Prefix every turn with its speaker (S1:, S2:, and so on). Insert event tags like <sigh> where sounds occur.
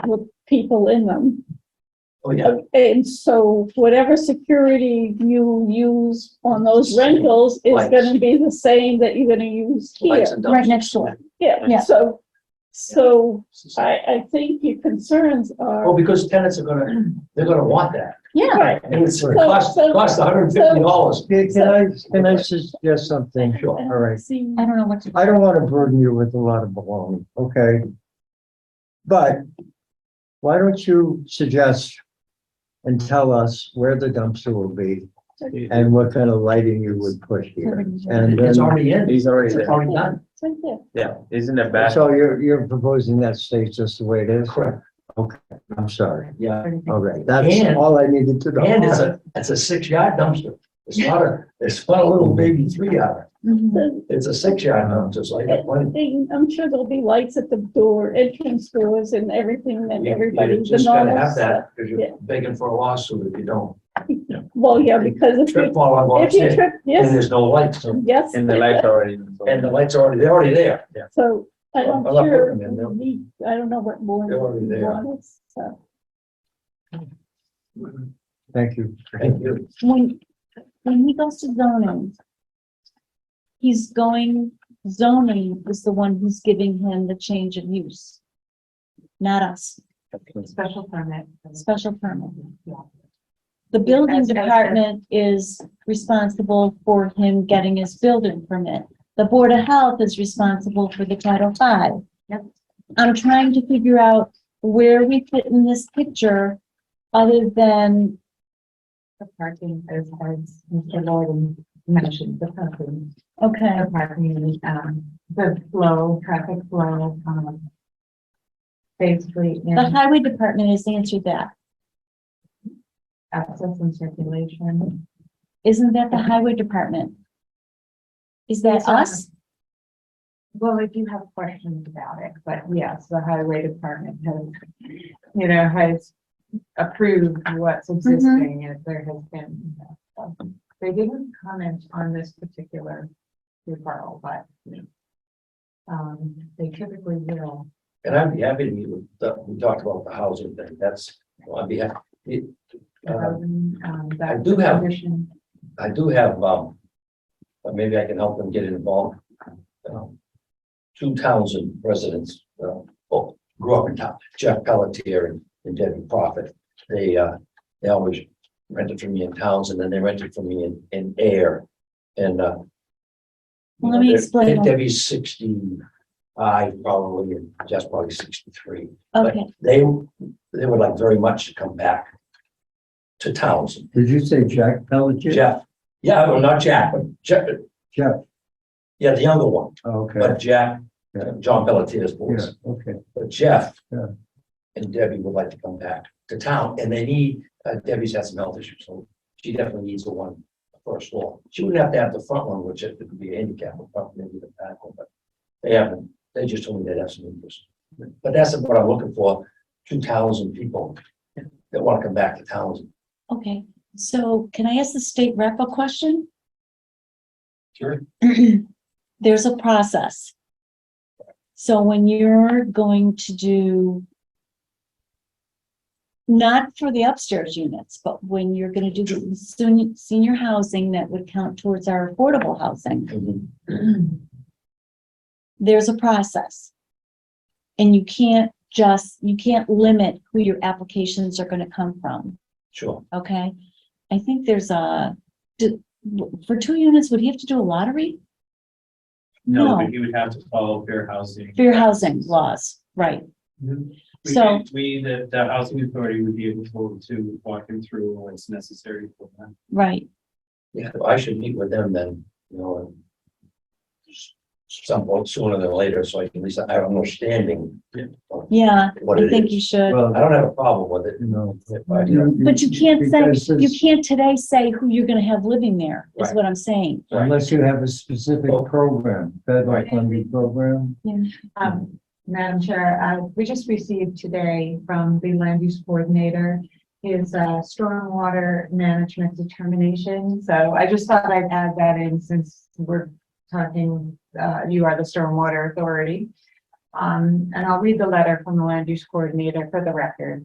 S1: with people in them.
S2: Oh, yeah.
S1: And so whatever security you use on those rentals is
S2: Right.
S1: gonna be the same that you're gonna use here.
S2: Lights and
S3: right
S2: dumpsters.
S3: next door.
S1: Yeah,
S3: Yeah.
S1: so, so
S2: Yeah.
S1: I, I think your concerns
S2: Oh,
S1: are,
S2: because tenants are gonna, they're gonna want that.
S3: Yeah,
S1: right,
S2: And it's gonna
S1: So-
S2: cost,
S1: so-
S2: cost hundred and fifty dollars.
S4: Can can I, can I suggest something?
S2: Sure.
S4: All right.
S1: see,
S3: I don't know what to.
S4: I don't want to burden you with a lot of baloney, okay? But why don't you suggest and tell us where the dumpster will be and what kind of lighting you would put here? And
S2: It's
S4: then,
S2: already in.
S5: He's already
S2: It's
S5: there.
S2: already done.
S1: it's right there.
S5: Yeah, he's in the back.
S4: so you're, you're proposing that stays just the way it is?
S2: Correct.
S4: Okay, I'm sorry.
S2: Yeah.
S4: All right, that's
S2: And-
S4: all I needed to know.
S2: And it's a, it's a six yard dumpster. It's not a, it's not a little baby three yard.
S3: Mhm.
S1: The
S2: It's a six yard dumpster. It's like that one.
S1: thing- I'm sure there'll be lights at the door, entrance doors and everything and
S2: You-
S1: everybody,
S2: You
S1: the
S2: just gotta
S1: normal
S2: have
S1: stuff.
S2: that because
S1: Yeah.
S2: you're begging for a lawsuit if you don't.
S1: Well, yeah, because if
S2: Trip
S1: you,
S2: while I'm
S1: if you
S2: upstairs
S1: trip,
S2: and
S1: yes,
S2: there's no lights. so-
S1: yes.
S5: And the lights are already. in, so-
S2: And the lights are already, they're already there.
S1: So I don't
S2: I'll- I'll put
S1: sure,
S2: them in there.
S1: we- I don't know what more.
S2: They're already
S1: you
S2: there.
S1: want us, so.
S4: Thank you.
S2: Thank you.
S3: When, when he goes to zoning, he's going, zoning is the one who's giving him the change of use. Not us,
S6: Special permit.
S3: special permit.
S6: Yeah.
S3: The building
S6: As- as- as-
S3: department is responsible for him getting his building permit. The Board of Health is responsible for the Title V.
S6: Yep.
S3: I'm trying to figure out where we fit in this picture other than
S6: The parking, as, as Mr. Lorden mentioned, the parking,
S3: Okay,
S6: the parking, um, the flow, traffic flow, um. Basically,
S3: the
S6: in
S3: highway department has answered that.
S6: access and circulation.
S3: Isn't that the highway department? Is that
S6: Yes, ma'am.
S3: us?
S6: Well, if you have questions about it, but yes, the highway department has, you know, has approved what's existing and there has been. you know, so. They didn't comment on this particular referral, but. Um, they typically will.
S2: And I'd be happy to meet with, the- we talked about the housing thing, that's, well, I'd be happy. it, uh,
S6: Um, um,
S2: I
S6: that
S2: do have- <clears throat>
S6: commission,
S2: I do have, um, but maybe I can help them get involved. um, Two Townsend residents, uh, oh, grew up in town, Jeff Pelletier and, and Debbie Prophet. They, uh, they always rented from me in Townsend, and then they rented from me in, in Air, and, uh. you
S3: Let
S2: know,
S3: me
S2: they're-
S3: explain.
S2: Debbie's sixty, I probably, and Jeff's probably sixty-three
S3: Okay,
S2: they, they would like very much to come back to Townsend.
S4: Did you say Jack Pelletier?
S2: Jeff, yeah, well, not Jack, but Jeff,
S4: Jeff,
S2: yeah, the younger one,
S4: okay,
S2: but Jack, uh, John Pelletier's
S4: yeah,
S2: boys.
S4: okay.
S2: But Jeff
S4: Yeah.
S2: and Debbie would like to come back to town, and they need, uh, Debbie's had some health issues, so she definitely needs the one first floor. She wouldn't have to have the front one, which it could be a handicap, but probably maybe the back one, but they haven't, they just told me they have some interest. But that's what I'm looking for, two thousand people that want to come back to Townsend.
S3: okay. So can I ask the state rep a question?
S2: Sure.
S3: <clears throat> There's a process. So when you're going to do not for the upstairs units, but when you're gonna do the senior, senior housing that would count towards our affordable housing,
S6: Um,
S3: there's a process. And you can't just, you can't limit who your applications are gonna come from,
S2: Sure.
S3: okay? I think there's a, do- for two units, would he have to do a lottery?
S7: No,
S3: No.
S7: but he would have to follow fair housing.
S3: Fair housing laws, right?
S4: Mm-hmm.
S7: We-
S3: So-
S7: We, the, the housing authority would be able to walk him through what's necessary for that.
S3: Right,
S2: Yeah, I should meet with them then, you know, and some point sooner than later, so I can at least, I have an understanding
S3: yeah,
S2: what
S3: I
S2: it
S3: think Mm-hmm. you
S2: is.
S3: should.
S2: I
S4: Well,
S2: don't have a problem with it.
S4: you know.
S2: if I, you know,
S3: But you can't
S4: because
S3: say, you
S4: it's-
S3: can't today say who you're gonna have living there, is
S2: Right.
S3: what I'm saying.
S4: Unless you have a specific
S2: Well-
S4: program, federal funded program.
S6: Um, Madam Chair, uh, we just received today from the land use coordinator his, uh, stormwater management determination. So I just thought I'd add that in since we're talking, uh, you are the stormwater authority. Um, and I'll read the letter from the land use coordinator for the record.